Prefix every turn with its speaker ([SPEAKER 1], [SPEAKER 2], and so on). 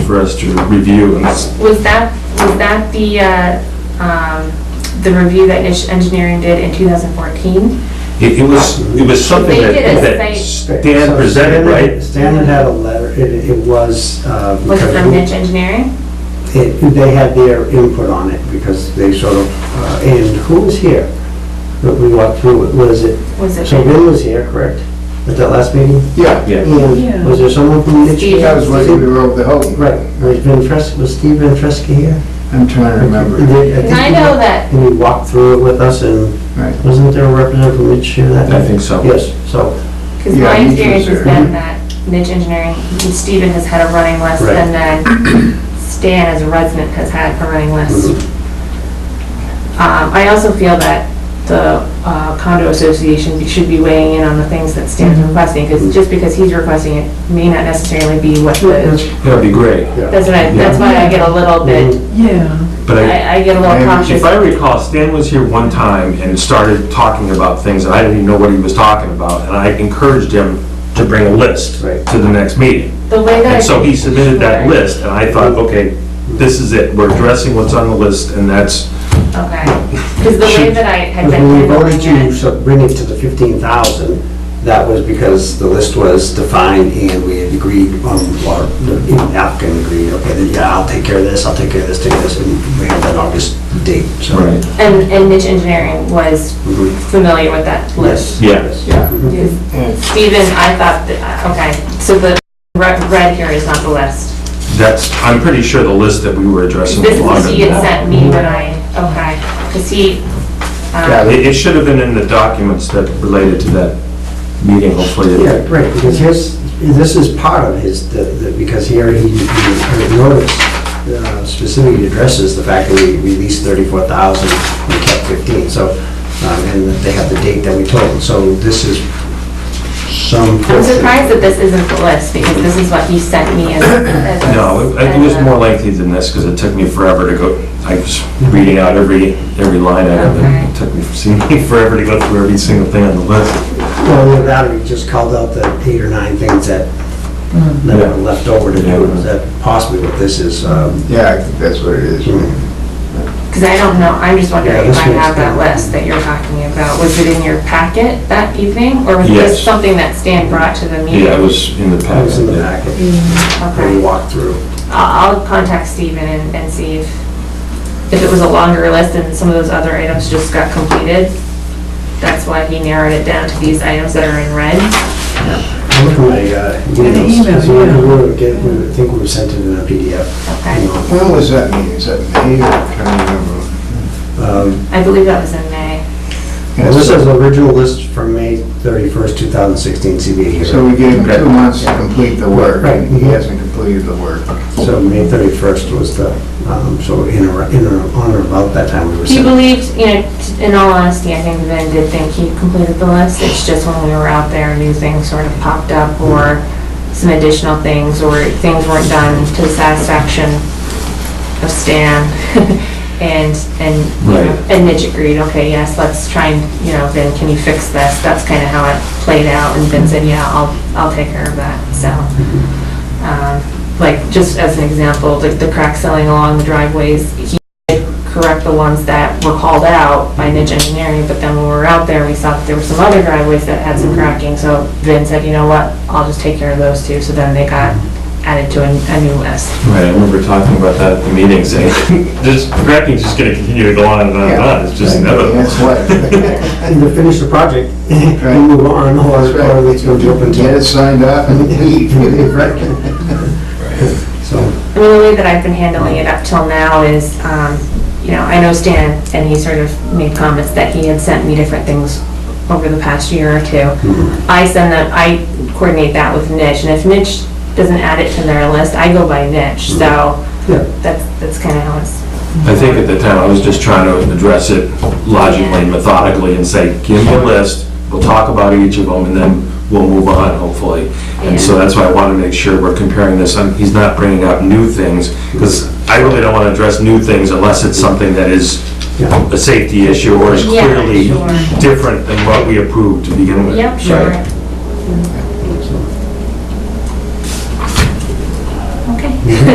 [SPEAKER 1] for us to review and s-
[SPEAKER 2] Was that, was that the, uh, um, the review that Niche Engineering did in 2014?
[SPEAKER 1] It it was, it was something
[SPEAKER 2] They
[SPEAKER 1] that
[SPEAKER 2] did a
[SPEAKER 1] that
[SPEAKER 2] site-
[SPEAKER 1] Stan
[SPEAKER 3] So
[SPEAKER 1] presented,
[SPEAKER 3] Stan-
[SPEAKER 1] right?
[SPEAKER 3] Stan had had a letter, it, it was. uh,
[SPEAKER 2] Was it
[SPEAKER 3] because
[SPEAKER 2] from Niche Engineering?
[SPEAKER 3] it- They had their input on it because they sort of, uh, and who was here? That we walked through, it? was it,
[SPEAKER 2] Was it?
[SPEAKER 3] so Vin was here, correct? At that last meeting?
[SPEAKER 4] Yeah,
[SPEAKER 1] Yeah.
[SPEAKER 3] And was there someone from the
[SPEAKER 2] Steve.
[SPEAKER 4] that was when we were over the Houghton.
[SPEAKER 3] Right, was Vin Fres, was Steve Vin Fresca here?
[SPEAKER 4] I'm trying to remember.
[SPEAKER 3] They-
[SPEAKER 2] Because I
[SPEAKER 3] think-
[SPEAKER 2] know that,
[SPEAKER 3] And he walked through it with us and
[SPEAKER 4] Right.
[SPEAKER 3] wasn't there a representative from each year that?
[SPEAKER 1] I
[SPEAKER 3] night?
[SPEAKER 1] think so.
[SPEAKER 3] Yes, so,
[SPEAKER 2] because
[SPEAKER 4] Yeah,
[SPEAKER 2] my
[SPEAKER 4] Niche
[SPEAKER 2] experience has
[SPEAKER 4] was there.
[SPEAKER 2] been that Niche Engineering, Stephen has had a running list,
[SPEAKER 3] Right.
[SPEAKER 2] and then Stan as a resident has had a running list. Um, I also feel that the uh, condo association be- should be weighing in on the things that Stan's requesting, because just because he's requesting it may not necessarily be what the,
[SPEAKER 1] That'd be great.
[SPEAKER 2] that's what I, that's why I get a little bit,
[SPEAKER 5] Yeah,
[SPEAKER 1] But Mm-hmm. I,
[SPEAKER 2] I I get a little
[SPEAKER 4] Maybe
[SPEAKER 2] cautious.
[SPEAKER 1] if I recall, Stan was here one time and started talking about things and I didn't even know what he was talking about. And I encouraged him to bring a list
[SPEAKER 3] Right.
[SPEAKER 1] to the next meeting.
[SPEAKER 2] The way that I.
[SPEAKER 1] And so he submitted that
[SPEAKER 2] Sure.
[SPEAKER 1] list and I thought, okay, this is it. We're addressing what's on the list and that's,
[SPEAKER 2] Okay, because the way that I had
[SPEAKER 3] Because
[SPEAKER 2] been
[SPEAKER 3] when we
[SPEAKER 2] handling
[SPEAKER 3] voted to
[SPEAKER 2] it,
[SPEAKER 3] sub- bring it to the 15,000, that was because the list was defined and we had agreed, on or the applicant agreed, okay, then, yeah, I'll take care of this, I'll take care of this, take this, and we had that August date, so.
[SPEAKER 1] Right.
[SPEAKER 2] and, and niche engineering was
[SPEAKER 3] Mhm.
[SPEAKER 2] familiar with that list.
[SPEAKER 3] Yes. Mm-hmm.
[SPEAKER 1] Yeah.
[SPEAKER 4] Yeah,
[SPEAKER 2] Because Stephen, I thought, that- uh, okay, so the red red here is not the list.
[SPEAKER 1] that's, I'm pretty sure the list that we were addressing was
[SPEAKER 2] This is
[SPEAKER 1] longer
[SPEAKER 2] what he
[SPEAKER 1] than
[SPEAKER 2] had
[SPEAKER 1] that.
[SPEAKER 2] sent me when I, okay, because he,
[SPEAKER 1] Yeah,
[SPEAKER 2] um,
[SPEAKER 1] It, it should have been in the documents that related to that meeting, hopefully.
[SPEAKER 3] Yeah, right, because his, this is part of his, the- the- because here he, he noticed uh, specifically addresses the fact that we released 34,000, we kept 15, so, um, and they have the date that we told, them. so this is some.
[SPEAKER 2] I'm
[SPEAKER 3] portion.
[SPEAKER 2] surprised that this isn't the list, because this is what he sent me as. as a-
[SPEAKER 1] No, it it was
[SPEAKER 2] as a-
[SPEAKER 1] more lengthy than this, because it took me forever to go, I was reading out every, every line item, and it took me, seemed me forever to go through every single thing on the list.
[SPEAKER 3] Well, with that, we just called out the eight or nine things that,
[SPEAKER 2] Hmm.
[SPEAKER 3] that
[SPEAKER 1] Yeah.
[SPEAKER 3] were left over to do,
[SPEAKER 1] Yeah.
[SPEAKER 3] is that possibly what this is, um,
[SPEAKER 4] yeah, I think that's what it is.
[SPEAKER 2] Because I don't know, I'm just wondering
[SPEAKER 3] Yeah,
[SPEAKER 2] if
[SPEAKER 3] this
[SPEAKER 2] I
[SPEAKER 3] one's
[SPEAKER 2] have that
[SPEAKER 3] good.
[SPEAKER 2] list that you're talking about. Was it in your packet that evening? Or was this
[SPEAKER 1] Yes.
[SPEAKER 2] something that Stan brought to the meeting?
[SPEAKER 1] Yeah, it was in the
[SPEAKER 3] that was in the
[SPEAKER 1] packet.
[SPEAKER 3] packet, that we
[SPEAKER 2] Okay.
[SPEAKER 3] walked through.
[SPEAKER 2] I'll I'll contact Stephen and and see if, if it was a longer list and some of those other items just got completed. That's why he narrowed it down to these items that are in red.
[SPEAKER 3] I look at my, uh, emails,
[SPEAKER 5] email,
[SPEAKER 3] because we
[SPEAKER 5] yeah.
[SPEAKER 3] were getting- I think we sent it in a PDF.
[SPEAKER 2] Okay.
[SPEAKER 3] you know.
[SPEAKER 4] When was that meeting? Is that May or, I can't remember.
[SPEAKER 3] Um,
[SPEAKER 2] I believe that was in May.
[SPEAKER 3] Well, this
[SPEAKER 4] Yeah,
[SPEAKER 3] is the
[SPEAKER 4] so-
[SPEAKER 3] original list from May 31st, 2016 CBA
[SPEAKER 4] So
[SPEAKER 3] hearing.
[SPEAKER 4] we gave him two months to complete the work,
[SPEAKER 3] Right.
[SPEAKER 4] and he hasn't completed the work.
[SPEAKER 3] So May 31st was the, um, so in or, in or, on or about that time we were.
[SPEAKER 2] He
[SPEAKER 3] sent-
[SPEAKER 2] believed, you know, t- in all honesty, I think Ben did think he completed the list. It's just when we were out there, new things sort of popped up or some additional things or things weren't done to the satisfaction of Stan. And, and, you know,
[SPEAKER 1] Right.
[SPEAKER 2] and Mitch agreed, okay, yes, let's try and, you know, Ben, can you fix this? That's kind of how it played out. And Ben said, yeah, I'll, I'll take care of that, so. um, Like, just as an example, the, the crack selling along the driveways, he correct the ones that were called out by Niche Engineering, but then when we were out there, we saw that there were some other driveways that had some cracking, so Vin said, you know what, I'll just take care of those two, so then they got added to a, a new list.
[SPEAKER 1] Right, I remember talking about that at the eh? meeting, saying, this cracking's just gonna continue to go on and on and on, it's just
[SPEAKER 4] Yeah.
[SPEAKER 1] inevitable.
[SPEAKER 4] That's what.
[SPEAKER 3] And to finish the project,
[SPEAKER 4] Right.
[SPEAKER 3] and move on, or,
[SPEAKER 4] That's right.
[SPEAKER 3] or it's going to open
[SPEAKER 4] Get it
[SPEAKER 3] to.
[SPEAKER 4] signed off and leave.
[SPEAKER 3] Right. So,
[SPEAKER 2] I mean, the way that I've been handling it up till now is, um, you know, I know Stan, and he sort of made comments that he had sent me different things over the past year or two.
[SPEAKER 1] Mm-hmm.
[SPEAKER 2] I send them, I coordinate that with Niche, and if Niche doesn't add it to their list, I go by Niche, so
[SPEAKER 3] yeah.
[SPEAKER 2] that's, that's kind of how it's
[SPEAKER 1] I think at the time, I was just trying to address it logically and methodically and say, give me a list, we'll talk about each of them, and then we'll move on, hopefully. And so that's why I want to make sure we're comparing this, and he's not bringing up new things, because I really don't want to address new things unless it's something that is
[SPEAKER 3] Yeah.
[SPEAKER 1] a safety issue or is
[SPEAKER 2] Yeah,
[SPEAKER 1] clearly
[SPEAKER 2] sure.
[SPEAKER 1] different than what we approved to begin with.
[SPEAKER 2] Yep, sure.
[SPEAKER 1] Right.